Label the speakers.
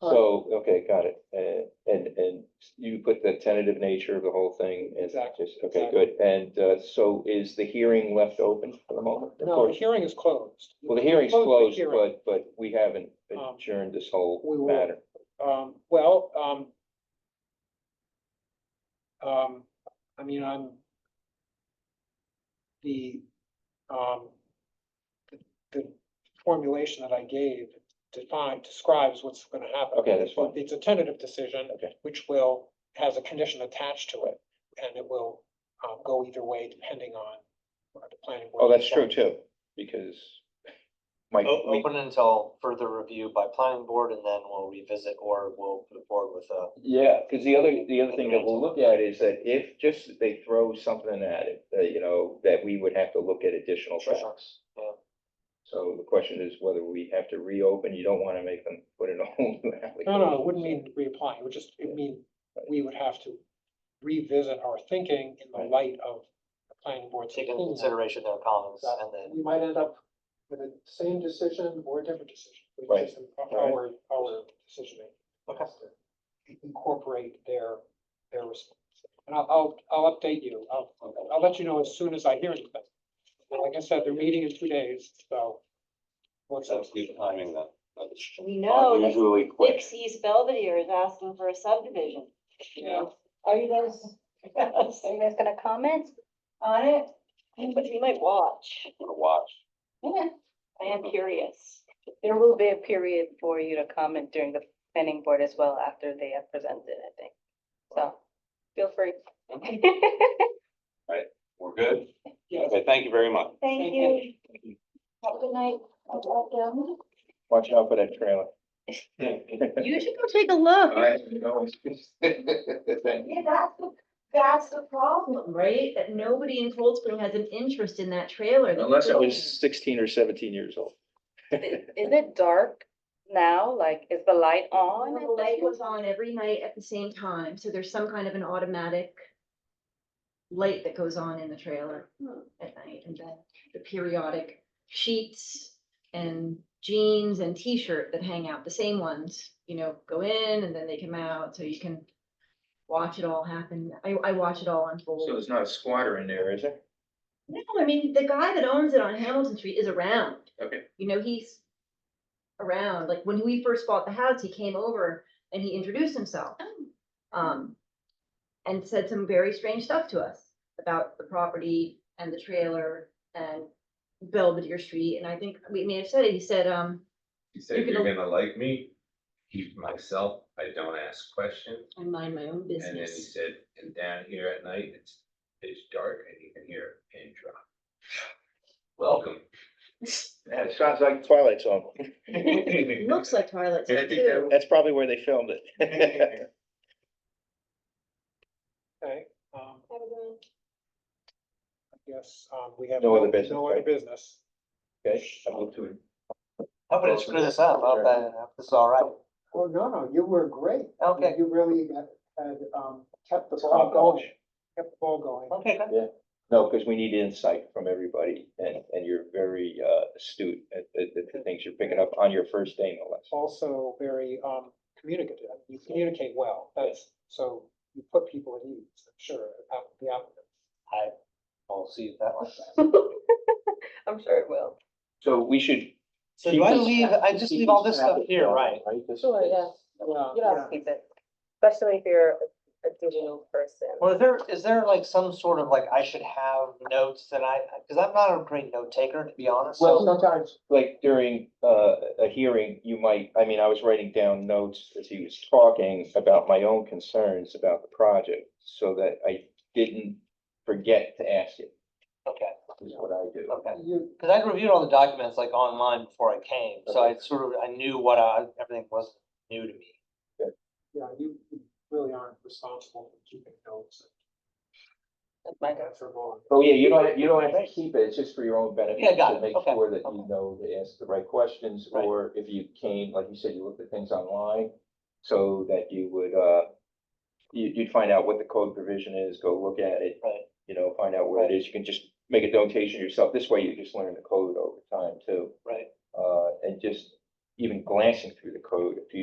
Speaker 1: So, okay, got it. Uh, And, and you put the tentative nature of the whole thing and
Speaker 2: Exactly,
Speaker 1: just, okay,
Speaker 2: exactly.
Speaker 1: good. And uh, so is the hearing left open for the moment? Of
Speaker 2: No, the
Speaker 1: course.
Speaker 2: hearing is closed.
Speaker 1: Well, the hearing's
Speaker 2: Close the
Speaker 1: closed,
Speaker 2: hearing.
Speaker 1: but, but we haven't
Speaker 2: Um,
Speaker 1: adjourned this whole
Speaker 2: we will.
Speaker 1: matter.
Speaker 2: Um, well, um. Um, I mean, I'm. The, um. the- The formulation that I gave defined, describes what's gonna happen.
Speaker 1: Okay, that's fine.
Speaker 2: It's a tentative decision.
Speaker 1: Okay.
Speaker 2: Which will, has a condition attached to it, and it will, um, go either way depending on. what the planning board
Speaker 1: Oh, that's true
Speaker 2: decides.
Speaker 1: too, because my,
Speaker 3: Oh,
Speaker 4: O-
Speaker 1: we-
Speaker 4: Open until further review by planning board and then we'll revisit or we'll move forward with uh, a.
Speaker 1: yeah, because the other, the other thing that we'll look at is that if just that they throw something at it, uh, you know, that we would have to look at additional facts.
Speaker 4: Yeah.
Speaker 1: So the question is whether we have to reopen, you don't want to make them put in a whole new application.
Speaker 2: No, no, it wouldn't mean reapplying, it would just, it mean, we would have to revisit our thinking in the
Speaker 1: Right.
Speaker 2: light of the planning board's
Speaker 4: Take into
Speaker 2: opinion.
Speaker 4: consideration their comments
Speaker 2: That-
Speaker 4: and then,
Speaker 2: We might end up with the same decision or a different decision. It would
Speaker 1: Right.
Speaker 2: just improve Our, our decision
Speaker 4: okay,
Speaker 2: making, incorporate their, their response. And I'll, I'll, I'll update you, I'll, I'll let you know as soon as I hear anything. And Like I said, they're meeting in two days, so. what's up?
Speaker 3: That's good timing then. That's
Speaker 5: We know that
Speaker 3: Unusually quick.
Speaker 5: Dixie's Belvedere is asking for a subdivision. you know.
Speaker 6: Are you guys, are you guys gonna comment on it?
Speaker 5: But we might watch.
Speaker 3: I'm gonna watch.
Speaker 6: Yeah.
Speaker 5: I am curious.
Speaker 6: There will be a period for you to comment during the planning board as well after they have presented, I think. So feel free.
Speaker 3: We're good?
Speaker 2: Yes.
Speaker 3: Okay, thank you very much.
Speaker 5: Thank you. Have a good night.
Speaker 1: Watch out for that trailer.
Speaker 6: You should go take a look.
Speaker 1: I know, it's- Thank you.
Speaker 7: Yeah, that's the, that's the problem, right? That nobody in Cold Spring has an interest in that trailer. that
Speaker 1: Unless I
Speaker 7: we're
Speaker 1: was sixteen or seventeen years old.
Speaker 6: Is it dark now? Like, is the light on?
Speaker 7: building.
Speaker 6: at
Speaker 7: The light
Speaker 6: this
Speaker 7: goes on every night at the same time, so there's some kind of an automatic light that goes on in the trailer at night, and then the periodic sheets and jeans and t-shirt that hang out, the same ones, you know, go in and then they come out, so you can watch it all happen. I, I watch it all unfold.
Speaker 1: So there's not a squatter in there, is there?
Speaker 7: No, I mean, the guy that owns it on Hamilton Street is around.
Speaker 1: Okay.
Speaker 7: You know, he's around, like when we first bought the house, he came over and he introduced himself. Um, and said some very strange stuff to us about the property and the trailer and Belvedere Street, and I think we may have said it, he said, um,
Speaker 8: You
Speaker 7: You're
Speaker 8: said you're
Speaker 7: gonna-
Speaker 8: gonna like me, keep myself, I don't ask questions.
Speaker 7: I mind my own
Speaker 8: And then he
Speaker 7: business.
Speaker 8: said, and down here at night, it's, it's dark and you can hear a pin drop. Welcome.
Speaker 1: Yeah, it sounds like Twilight Zone.
Speaker 7: It Looks like Twilight
Speaker 8: And I
Speaker 7: Zone
Speaker 8: think that
Speaker 7: too.
Speaker 1: That's probably where they filmed it.
Speaker 2: Okay, um,
Speaker 5: Have a good one.
Speaker 2: I guess, um, we have.
Speaker 1: No other business,
Speaker 2: No other
Speaker 1: right?
Speaker 2: business.
Speaker 1: Okay, I move to.
Speaker 4: how about I screw this up? I hope I- I hope This is all right.
Speaker 2: Well, no, no, you were great.
Speaker 4: Okay,
Speaker 2: You really had, had, um, kept the ball going, kept the ball going.
Speaker 4: okay, good.
Speaker 1: No, because we need insight from everybody and, and you're very uh, astute at, at at the things you're picking up on your first day, no less.
Speaker 2: Also very, um, communicative. You communicate well. That's, so you put people at ease, I'm sure, out the applicant.
Speaker 4: We'll see if that one.
Speaker 6: I'm sure it will.
Speaker 1: So we should.
Speaker 4: So
Speaker 1: keep
Speaker 4: do I
Speaker 1: this-
Speaker 4: leave, I just leave all this stuff here, right?
Speaker 6: Sure, yeah.
Speaker 2: Well,
Speaker 6: You don't have to keep it, especially if you're a- a digital person.
Speaker 4: Well, is there, is there like some sort of like, I should have notes that I, because I'm not a great note taker, to be honest.
Speaker 1: Well,
Speaker 4: so-
Speaker 1: sometimes, like during uh, a hearing, you might, I mean, I was writing down notes as he was talking about my own concerns about the project so that I didn't forget to ask you,
Speaker 4: Okay,
Speaker 1: is what I do.
Speaker 4: okay.
Speaker 2: you,
Speaker 4: Because I'd reviewed all the documents like online before I came, so I sort of, I knew what I, everything was new to me.
Speaker 2: yeah, you you really aren't responsible for keeping notes.
Speaker 6: That's my
Speaker 2: That's for long.
Speaker 1: Oh, yeah, you don't, you don't have to keep it, it's just for your own benefit.
Speaker 4: Yeah, got
Speaker 1: to
Speaker 4: it.
Speaker 1: Make
Speaker 4: Okay,
Speaker 1: sure that you
Speaker 4: okay.
Speaker 1: know to ask the right questions,
Speaker 4: Right.
Speaker 1: or if you came, like you said, you looked at things online, so that you would, uh, you, you'd find out what the code provision is, go look at it.
Speaker 4: Right.
Speaker 1: You know, find out where it is, you can just make a notation yourself, this way you just learn the code over time too.
Speaker 4: Right.
Speaker 1: Uh, and just even glancing through the code, if you